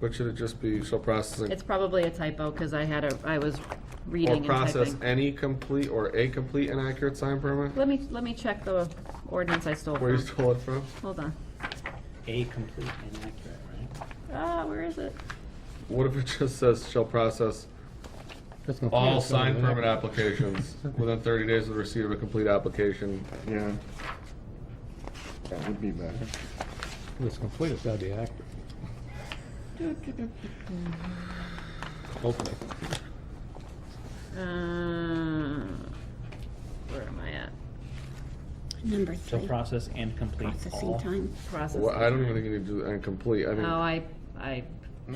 But should it just be shall processing? It's probably a typo, because I had a, I was Or reading and process typing. any complete or a complete and accurate sign permit? Let me, let me check the ordinance I stole Where you from. stole it from? Hold on. A complete and accurate, right? Ah, where is it? What if it just says shall process all sign permit applications within thirty days of the receipt of a complete application? Yeah. That would be better. If it's complete, it's gotta be accurate. Hopefully. Uh, Where am I at? Number So three, process and complete processing all. time. Processing. Well, I don't even think you need to do incomplete, I Oh, think I, I,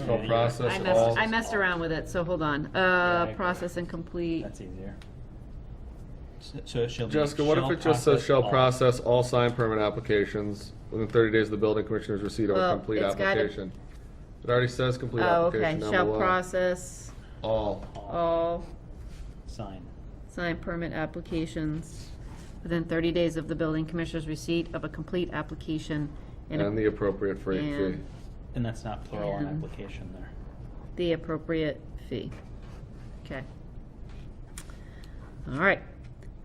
shall Yeah, I process all. messed, I messed around with it, so hold on. I Uh, agree. process incomplete. That's easier. So- So it shall be. Jessica, what if it just says shall process all sign permit applications within thirty days of the building commissioner's receipt of a Well, complete Oh, it's gotta- application? It already says complete Oh, okay, application down shall below. process All. all Sign. sign permit applications within thirty days of the building commissioner's receipt of a complete application and And the a- appropriate freight fee. and And that's not plural on And- application there. the appropriate fee. Okay. All right.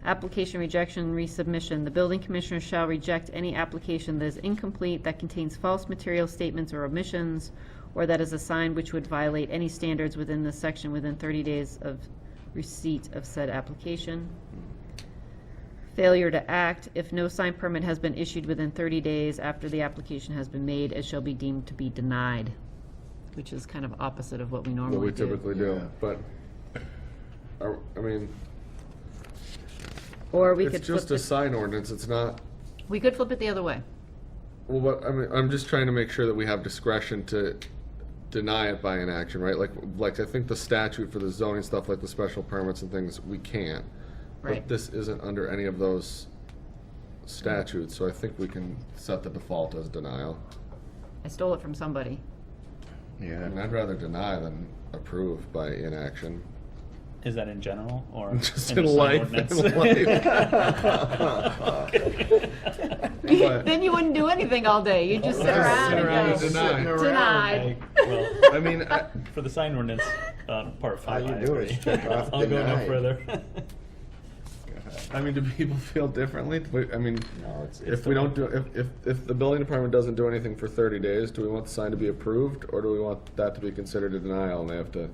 Application rejection, resubmission. The building commissioner shall reject any application that is incomplete, that contains false material statements or omissions, or that is a sign which would violate any standards within this section within thirty days of receipt of said application. Failure to act, if no sign permit has been issued within thirty days after the application has been made, it shall be deemed to be denied, which is kind of opposite of what we What we normally do. typically do, Yeah. but, I, I mean, Or we could it's flip just a it, sign ordinance, it's not, we could flip it the other way. well, what, I mean, I'm just trying to make sure that we have discretion to deny it by inaction, right? Like, like, I think the statute for the zoning stuff, like the special permits and things, we can't. Right. But this isn't under any of those statutes, so I think we can set the default as denial. I stole it from somebody. I Yeah. mean, I'd rather deny than approve by inaction. Is that in general or? Just the in sign life, ordinance? in life. Okay. What? Then you wouldn't do anything all day, you'd just sit Just around sit around and and go, deny. Denied. denied. Okay, well, I mean, I, For the sign ordinance, uh, part five. you I do is agree. check off I'll go no denied. further. I mean, do people feel differently? But, I mean, No, it's- if we don't do, if, if, if the building department doesn't do anything for thirty days, do we want the sign to be approved, or do we want that to be considered a denial and they have to?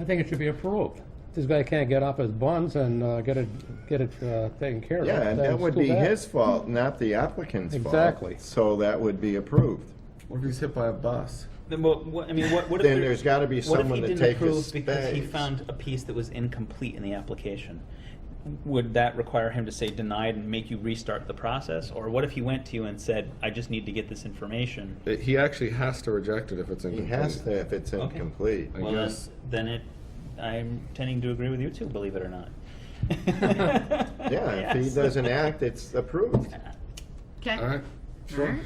I think it should be approved. This guy can't get off his buns and uh, get it, get it uh, taken care of. Yeah, and Then that it's would too be bad. his fault, not the applicant's fault. Exactly. So that would be approved. What if he's hit by a bus? Then what, what, I mean, what, what if Then there- there's gotta be what if someone he to didn't take approve his Because he space? found a piece that was incomplete in the application. Would that require him to say denied and make you restart the process? Or what if he went to you and said, I just need to get this information? It- He actually has to reject it if it's He incomplete. has to if it's Okay. incomplete. I Well, then- guess. Then it, I'm tending to agree with you too, believe it or not. Yeah, if he Yes. doesn't act, it's approved. All Okay, right, sure.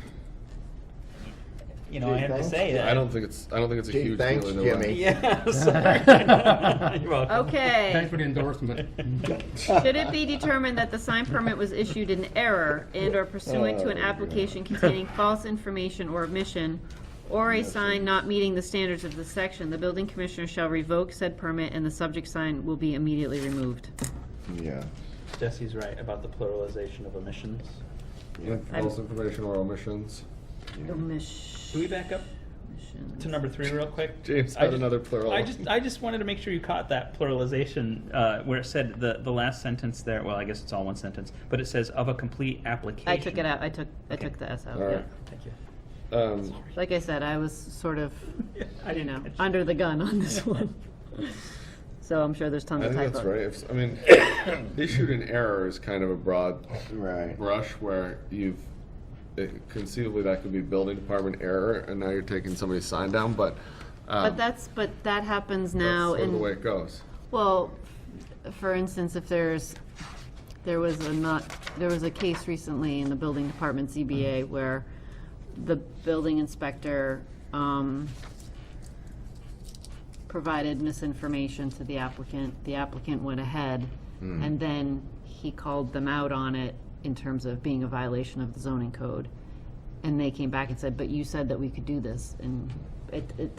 You know, I have to say that. I don't think it's, I don't think it's a Gee, huge deal thanks, either way. Jimmy. Yeah, I'm sorry. You're welcome. Thanks okay. for the endorsement. Should it be determined that the sign permit was issued in error and or pursuant Oh, to an application containing false information or omission, or a sign not meeting the standards of this section, the building commissioner shall revoke said permit and the subject sign will be immediately removed. Yeah. Jesse's right about the pluralization of omissions. With False information or omissions. Can we back up to number three real quick? James I had just- another plural. I just, I just wanted to make sure you caught that pluralization uh, where it said the, the last sentence there. Well, I guess it's all one sentence, but it says of a complete application. I took it out, I took, I took the S out, All yeah. right. Thank you. Um, Like I said, I was sort of, I you didn't know, catch it. under the gun on this one. So I'm sure there's tons I of think typos. that's right. If, I mean, issued in error is kind of a broad Right. brush where you've it, conceivably that could be building department error, and now you're taking somebody's sign down. But, um, But that's, but that happens that's now sort of the way in, it goes. well, for instance, if there's, there was a not, there was a case recently in the building department ZBA where the building inspector, um, provided misinformation to the applicant. The applicant went ahead, and then he called them out on it in terms of being a violation of the zoning code. And they came back and said, but you said that we could do this, and it, it,